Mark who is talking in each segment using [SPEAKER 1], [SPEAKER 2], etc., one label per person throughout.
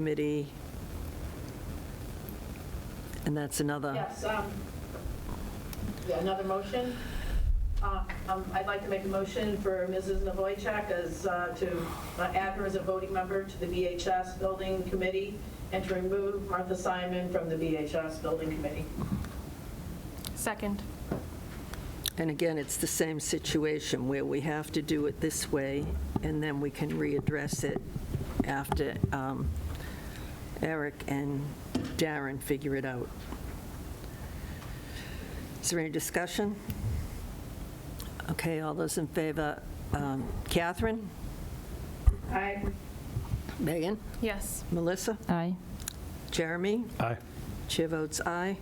[SPEAKER 1] committee. And that's another,
[SPEAKER 2] Yes, um, yeah, another motion. Uh, um, I'd like to make a motion for Mrs. Novoychak as, uh, to uh, add her as a voting member to the VHS Building Committee and to remove Martha Simon from the VHS Building Committee.
[SPEAKER 3] Second.
[SPEAKER 1] and again, it's the same situation where we have to do it this way, and then we can readdress it after um, Eric and Darren figure it out. Is there any discussion? Okay, all those in favor? um, Catherine?
[SPEAKER 2] Aye.
[SPEAKER 1] Megan?
[SPEAKER 3] Yes.
[SPEAKER 1] Melissa?
[SPEAKER 4] Aye.
[SPEAKER 1] Jeremy?
[SPEAKER 5] Aye.
[SPEAKER 1] Chair votes aye.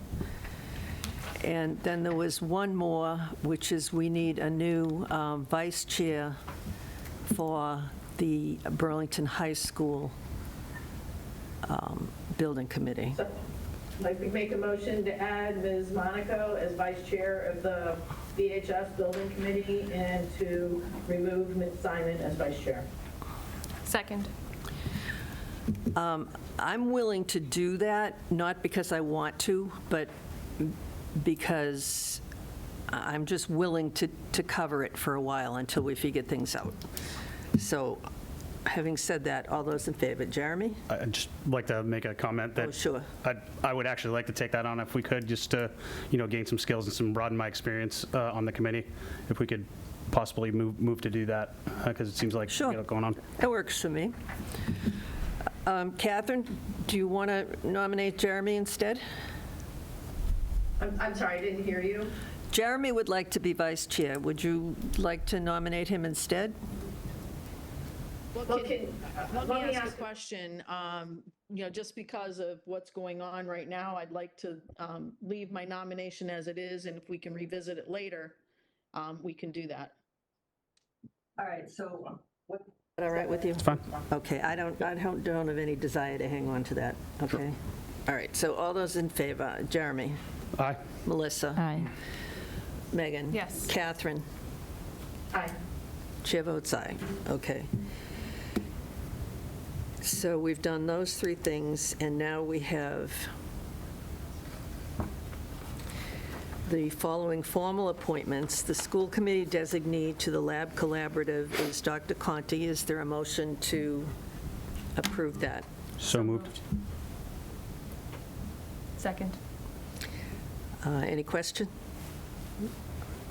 [SPEAKER 1] And then there was one more, which is we need a new um, vice chair for the Burlington High School um, Building Committee.
[SPEAKER 2] So, I'd like to make a motion to add Ms. Monaco as vice chair of the VHS Building Committee and to remove Ms. Simon as vice chair.
[SPEAKER 3] Second.
[SPEAKER 1] Um, I'm willing to do that, not because I want to, but because I- I'm just willing to, to cover it for a while until we figure things out. So having said that, all those in favor, Jeremy?
[SPEAKER 5] I'd just like to make a comment that.
[SPEAKER 1] Oh, sure.
[SPEAKER 5] I'd- I would actually like to take that on if we could, just to, you know, gain some skills and some broaden my experience uh, on the committee. If we could possibly move, move to do that, because it seems like. we
[SPEAKER 1] Sure.
[SPEAKER 5] got it Going on.
[SPEAKER 1] That works for me. Um, Catherine, do you want to nominate Jeremy instead?
[SPEAKER 2] I'm, I'm sorry, I didn't hear you.
[SPEAKER 1] Jeremy would like to be vice chair. Would you like to nominate him instead?
[SPEAKER 6] Well,
[SPEAKER 2] Well,
[SPEAKER 6] can,
[SPEAKER 2] can-
[SPEAKER 6] let me ask a question. Um, you know, just because of what's going on right now, I'd like to, um, leave my nomination as it is, and if we can revisit it later, um, we can do that.
[SPEAKER 1] All right, so. All right with you?
[SPEAKER 5] It's fine.
[SPEAKER 1] Okay, I don't, I don't don't have any desire to hang on to that, okay? All right, so all those in favor, Jeremy,
[SPEAKER 5] Aye.
[SPEAKER 1] Melissa,
[SPEAKER 4] Aye.
[SPEAKER 1] Megan?
[SPEAKER 3] Yes.
[SPEAKER 1] Catherine?
[SPEAKER 2] Aye.
[SPEAKER 1] Chair votes aye. Okay. So we've done those three things, and now we have the following formal appointments. The school committee designee to the lab collaborative is Dr. Conti. Is there a motion to approve that?
[SPEAKER 5] So moved.
[SPEAKER 3] Second.
[SPEAKER 1] Uh, Any question?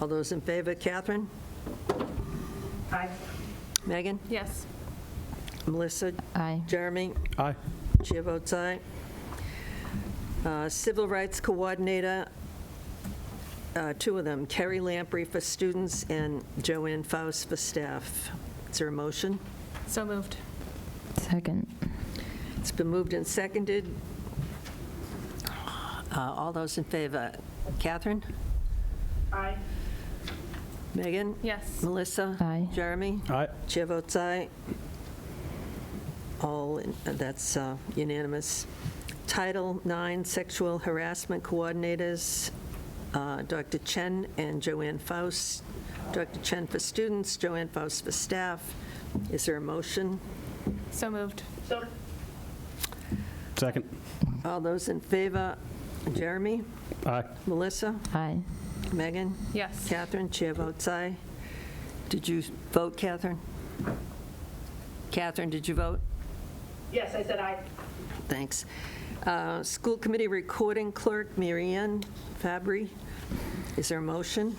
[SPEAKER 1] All those in favor? Catherine?
[SPEAKER 2] Aye.
[SPEAKER 1] Megan?
[SPEAKER 3] Yes.
[SPEAKER 1] Melissa?
[SPEAKER 4] Aye.
[SPEAKER 1] Jeremy?
[SPEAKER 5] Aye.
[SPEAKER 1] Chair votes aye. Uh, Civil Rights Coordinator, uh, two of them, Kerry Lamprey for students and Joanne Faust for staff. Is there a motion?
[SPEAKER 3] So moved.
[SPEAKER 4] Second.
[SPEAKER 1] It's been moved and seconded. Uh, All those in favor? Catherine?
[SPEAKER 2] Aye.
[SPEAKER 1] Megan?
[SPEAKER 3] Yes.
[SPEAKER 1] Melissa?
[SPEAKER 4] Aye.
[SPEAKER 1] Jeremy?
[SPEAKER 5] Aye.
[SPEAKER 1] Chair votes aye. All, in- that's uh, unanimous. Title IX Sexual Harassment Coordinators, uh, Dr. Chen and Joanne Faust. Dr. Chen for students, Joanne Faust for staff. Is there a motion?
[SPEAKER 3] So moved.
[SPEAKER 2] So,
[SPEAKER 5] Second.
[SPEAKER 1] All those in favor? Jeremy?
[SPEAKER 5] Aye.
[SPEAKER 1] Melissa?
[SPEAKER 4] Aye.
[SPEAKER 1] Megan?
[SPEAKER 3] Yes.
[SPEAKER 1] Catherine? Chair votes aye. Did you vote, Catherine? Catherine, did you vote?
[SPEAKER 2] yes, I said aye.
[SPEAKER 1] Thanks. Uh, School Committee Recording Clerk, Marianne Fabry. Is there a motion?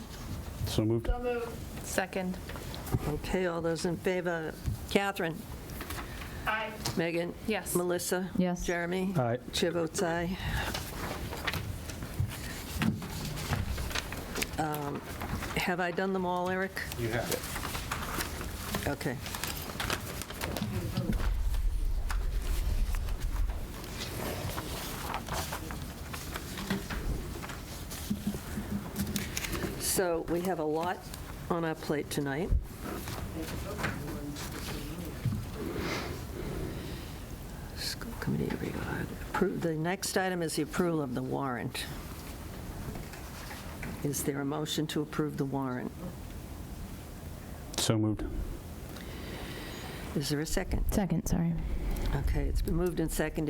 [SPEAKER 5] So moved.
[SPEAKER 2] So moved.
[SPEAKER 3] Second.
[SPEAKER 1] Okay, all those in favor? Catherine?
[SPEAKER 2] Aye.
[SPEAKER 1] Megan?
[SPEAKER 3] Yes.
[SPEAKER 1] Melissa?
[SPEAKER 4] Yes.
[SPEAKER 1] Jeremy?
[SPEAKER 5] Aye.
[SPEAKER 1] Chair votes aye. Um, Have I done them all, Eric?
[SPEAKER 5] You have it.
[SPEAKER 1] Okay. So we have a lot on our plate tonight. School committee regard, appro- the next item is the approval of the warrant. Is there a motion to approve the warrant?
[SPEAKER 5] So moved.
[SPEAKER 1] Is there a second?
[SPEAKER 4] Second, sorry.
[SPEAKER 1] Okay, it's been moved and seconded